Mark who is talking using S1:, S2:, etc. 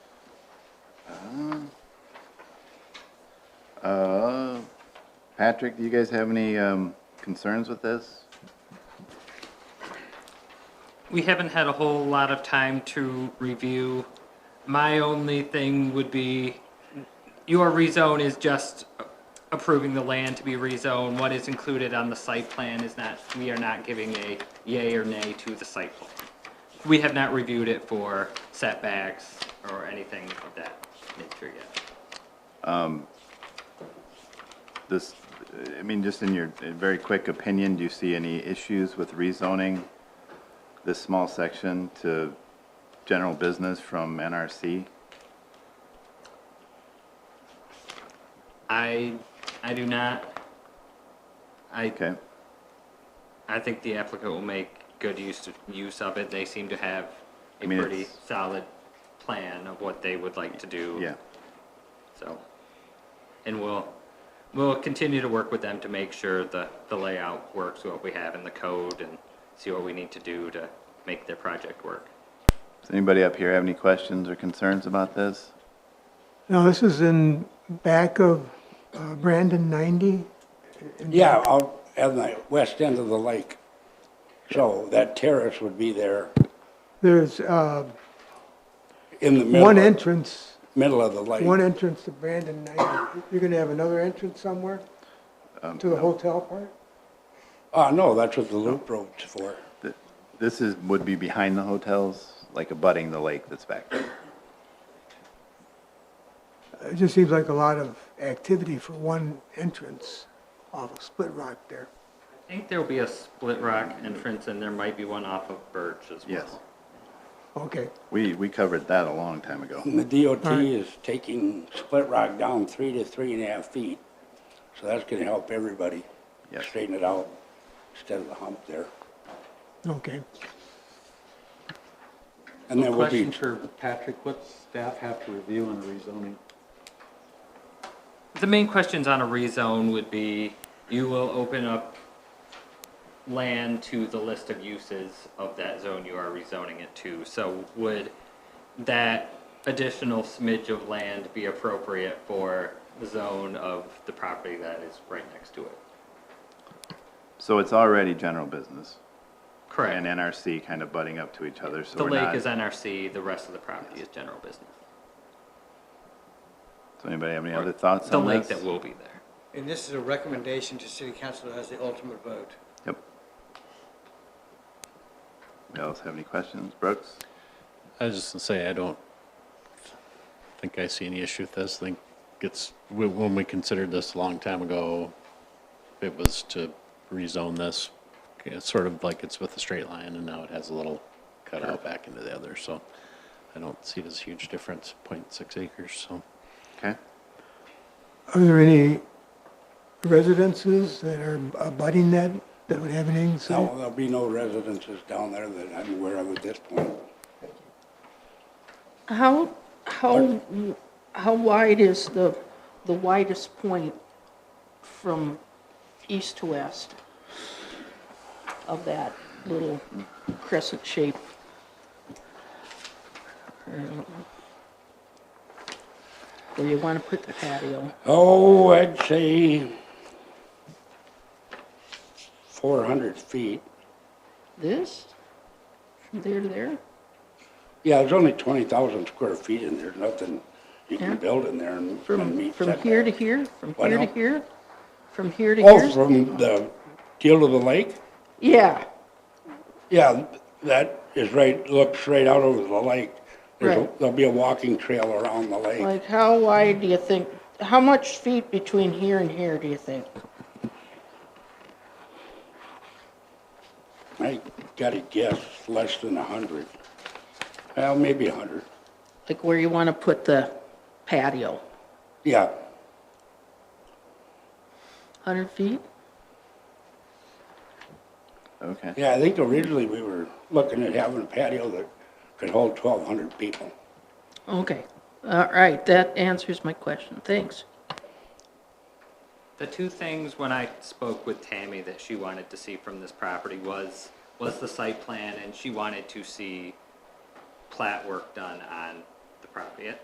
S1: Uh, Patrick, do you guys have any um, concerns with this?
S2: We haven't had a whole lot of time to review. My only thing would be, your rezone is just approving the land to be rezoned. What is included on the site plan is not, we are not giving a yay or nay to the site plan. We have not reviewed it for setbacks or anything of that nature yet.
S1: This, I mean, just in your uh, very quick opinion, do you see any issues with rezoning this small section to general business from NRC?
S2: I, I do not, I,
S1: Okay,
S2: I think the applicant will make good use of, use of it. They seem to have
S1: I
S2: a
S1: mean,
S2: pretty
S1: it's-
S2: solid plan of what they would like to do.
S1: yeah.
S2: So, and we'll, we'll continue to work with them to make sure the, the layout works, what we have in the code and see what we need to do to make their project work.
S1: Does anybody up here have any questions or concerns about this?
S3: Now, this is in back of uh, Brandon 90?
S4: Yeah, out at the west end of the lake. So that terrace would be there
S3: There's uh,
S4: in the middle.
S3: one
S4: of-
S3: entrance,
S4: Middle of the lake.
S3: one entrance to Brandon 90. You're going to have another entrance somewhere? To the hotel part?
S4: Oh, no, that's what the loop road's for.
S1: Th- This is, would be behind the hotels, like abutting the lake that's back there.
S3: It just seems like a lot of activity for one entrance off of Split Rock there.
S2: I think there'll be a split rock entrance and there might be one off of Birch as well.
S1: Yes,
S3: Okay,
S1: we, we covered that a long time ago.
S4: And the DOT
S3: Alright.
S4: is taking Split Rock down three to three and a half feet. So that's gonna help everybody
S1: Yes.
S4: straighten it out instead of the hump there.
S3: okay.
S4: And then we'll be,
S5: Question for Patrick, what staff have to review on rezoning?
S2: The main questions on a rezone would be, you will open up land to the list of uses of that zone you are rezoning it to. So would that additional smidge of land be appropriate for the zone of the property that is right next to it?
S1: So it's already general business and
S2: Correct.
S1: NRC kind of butting up to each other, so
S2: The
S1: we're
S2: lake
S1: not.
S2: is NRC, the rest of the property is general business.
S1: Does anybody have any other thoughts
S2: The
S1: on
S2: lake
S1: this?
S2: that will be there.
S6: And this is a recommendation to city council that has the ultimate vote.
S1: Yep. Anybody else have any questions? Brooks?
S7: I was just gonna say, I don't think I see any issue with this. I think it's, wh- when we considered this a long time ago, it was to rezone this, it's sort of like it's with a straight line, and now it has a little cutout back into the other, so I don't see this huge difference, 0.6 acres, so.
S1: Okay.
S3: Are there any residences that are abutting that, that would have anything to say?
S4: no, there'll be no residences down there that I'm aware of at this point.
S8: How, how, how wide is the, the widest point from east to west of that little crescent shape? Uh, Where you want to put the patio?
S4: Oh, I'd say four hundred feet.
S8: This? From there to there?
S4: Yeah, there's only twenty thousand square feet in there, nothing you
S8: Yeah.
S4: can build in there and and
S8: From,
S4: meet
S8: from here to
S4: setbacks.
S8: here? From
S4: Why
S8: here to
S4: not?
S8: here? From here to
S4: Oh,
S8: here?
S4: from the deal of the lake?
S8: Yeah,
S4: Yeah, that is right, looks right out over the lake. There's a-
S8: Right.
S4: There'll be a walking trail around the lake.
S8: like how wide do you think, how much feet between here and here do you think?
S4: I gotta guess, less than a hundred. Well, maybe a hundred.
S8: like where you want to put the patio,
S4: Yeah,
S8: 100 feet?
S1: Okay.
S4: yeah, I think originally we were looking at having a patio that could hold twelve hundred people.
S8: Okay, all right, that answers my question, thanks.
S2: The two things when I spoke with Tammy that she wanted to see from this property was, was the site plan and she wanted to see plat work done on the property.